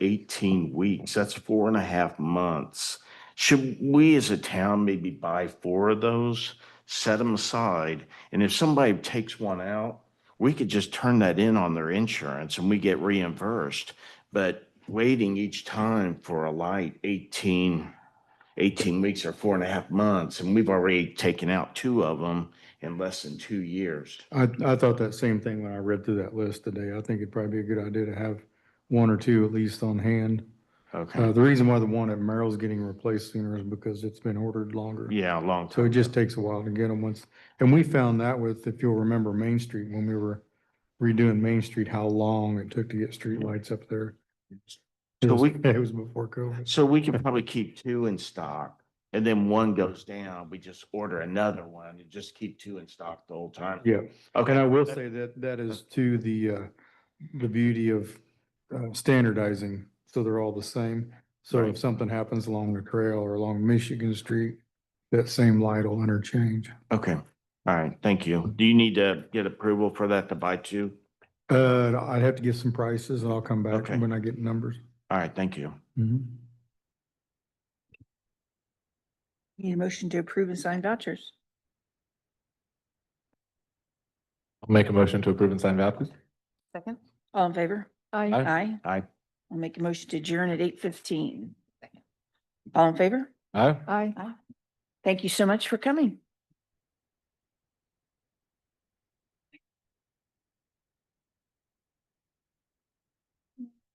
eighteen weeks. That's four and a half months. Should we as a town maybe buy four of those, set them aside? And if somebody takes one out, we could just turn that in on their insurance and we get reimbursed. But waiting each time for a light 18, 18 weeks or four and a half months, and we've already taken out two of them in less than two years. I, I thought that same thing when I read through that list today. I think it'd probably be a good idea to have one or two at least on hand. Uh, Okay, the reason why the one at Merrill's getting replaced sooner is because it's been ordered longer. yeah, a long So it time. just takes a while to get them once. And we found that with, if you'll remember Main Street, when we were redoing Main Street, how long it took to get streetlights up there. It So we- was- It was before COVID. So we can probably keep two in stock, and then one goes down, we just order another one and just keep two in stock the whole time. Yeah. Okay, And I will say that that is to the, uh, the beauty of uh, standardizing, so they're all the same. So Right. if something happens along the trail or along Michigan Street, that same light will interchange. Okay, all right, thank you. Do you need to get approval for that to buy two? Uh, I'd have to get some prices and I'll come back Okay. when I get numbers. All right, thank you. Mhm. Need a motion to approve and sign vouchers. I'll make a motion to approve and sign vouchers. Second. All in favor? Aye. Aye. Aye. I'll make a motion to adjourn at eight fifteen. All in favor? Aye. Aye. Thank you so much for coming.